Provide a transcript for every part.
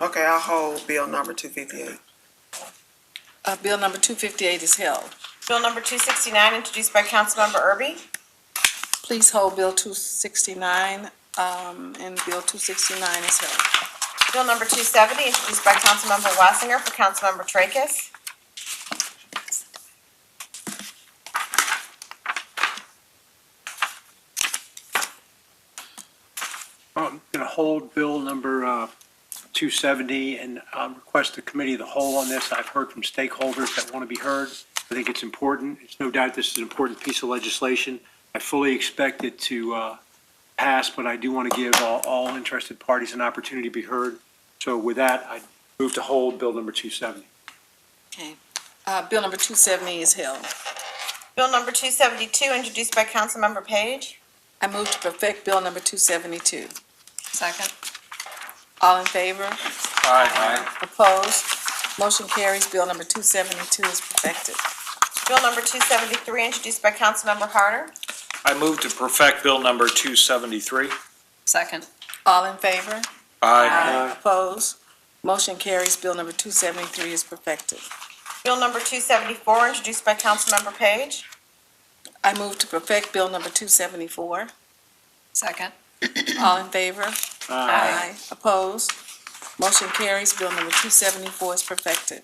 Okay, I'll hold bill number two fifty-eight. Uh, bill number two fifty-eight is held. Bill number two sixty-nine, introduced by Councilmember Erby. Please hold bill two sixty-nine, um, and bill two sixty-nine is held. Bill number two seventy, introduced by Councilmember Wassinger for Councilmember Tracus. I'm going to hold bill number uh, 270 and um, request the committee of the whole on this. I've heard from stakeholders that want to be heard. I think it's important. It's no doubt this is an important piece of legislation. I fully expect it to uh, pass, but I do want to give all- all interested parties an opportunity to be heard. So with that, I move to hold bill number 270. Uh, bill number two seventy is held. Bill number two seventy-two, introduced by Councilmember Page. I move to perfect bill number two seventy-two. Second. All in favor? Opposed? Motion carries. Bill number two seventy-two is perfected. Bill number two seventy-three, introduced by Councilmember Harder. I move to perfect Bill number 273. Second. All in favor? Aye. Opposed? Motion carries. Bill number two seventy-three is perfected. Bill number two seventy-four, introduced by Councilmember Page. I move to perfect bill number two seventy-four. Second. All in favor? Aye. Opposed? Motion carries. Bill number two seventy-four is perfected.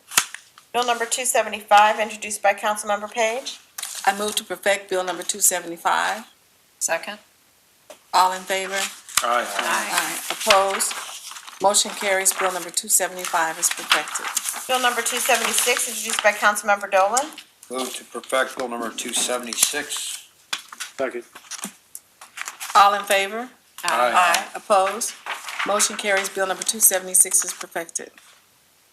Bill number two seventy-five, introduced by Councilmember Page. I move to perfect bill number two seventy-five. Second. All in favor? Aye. Aye. Opposed? Motion carries. Bill number two seventy-five is perfected. Bill number two seventy-six, introduced by Councilmember Dolan. Move to perfect bill number two seventy-six. Second. All in favor? Aye. Opposed? Motion carries. Bill number two seventy-six is perfected.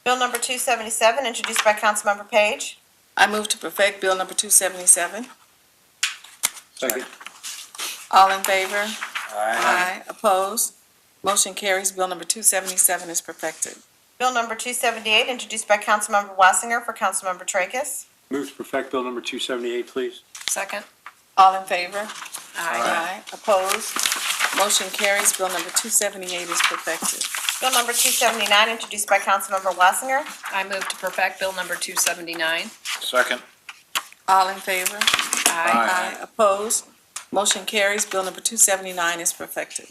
Bill number two seventy-seven, introduced by Councilmember Page. I move to perfect Bill number two seventy-seven. Second. All in favor? Aye. Opposed? Motion carries. Bill number two seventy-seven is perfected. Bill number two seventy-eight, introduced by Councilmember Wassinger for Councilmember Tracus. Move to perfect bill number 278, please. Second. All in favor? Aye. Opposed? Motion carries. Bill number two seventy-eight is perfected. Bill number two seventy-nine, introduced by Councilmember Wassinger. I move to perfect Bill number 279. Second. All in favor? Aye. Opposed? Motion carries. Bill number two seventy-nine is perfected.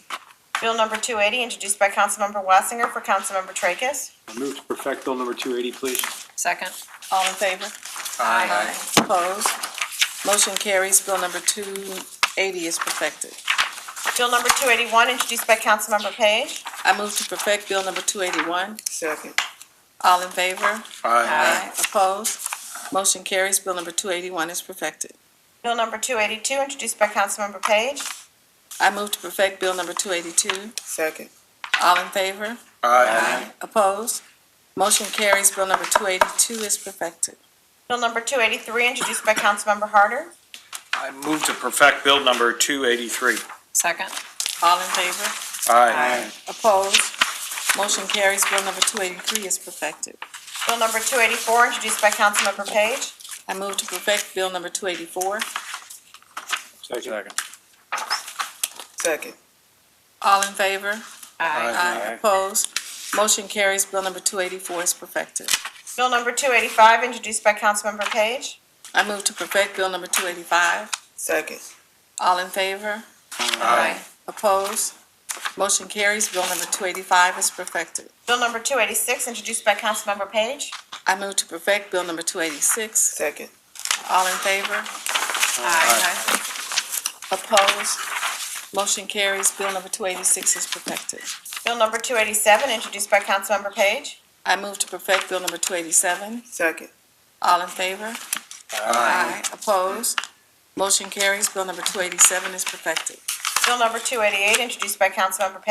Bill number two eighty, introduced by Councilmember Wassinger for Councilmember Tracus. Move to perfect bill number 280, please. Second. All in favor? Aye. Opposed? Motion carries. Bill number two eighty is perfected. Bill number two eighty-one, introduced by Councilmember Page. I move to perfect Bill number two eighty-one. Second, All in favor? Aye. Opposed? Motion carries. Bill number two eighty-one is perfected. Bill number two eighty-two, introduced by Councilmember Page. I move to perfect Bill number two eighty-two. second, All in favor? Aye. Opposed? Motion carries. Bill number two eighty-two is perfected. Bill number two eighty-three, introduced by Councilmember Harder. I move to perfect Bill number 283. Second. All in favor? Aye. Opposed? Motion carries. Bill number two eighty-three is perfected. Bill number two eighty-four, introduced by Councilmember Page. I move to perfect Bill number two eighty-four. Second. second, All in favor? Aye. Aye. Opposed? Motion carries. Bill number two eighty-four is perfected. Bill number two eighty-five, introduced by Councilmember Page. I move to perfect Bill number two eighty-five. second, All in favor? Aye. Opposed? Motion carries. Bill number two eighty-five is perfected. Bill number two eighty-six, introduced by Councilmember Page. I move to perfect Bill number two eighty-six. second, All in favor? Aye. Opposed? Motion carries. Bill number two eighty-six is perfected. Bill number two eighty-seven, introduced by Councilmember Page. I move to perfect Bill number two eighty-seven. second, All in favor? Aye. Opposed? Motion carries. Bill number two eighty-seven is perfected. Bill number two eighty-eight, introduced by Councilmember Page.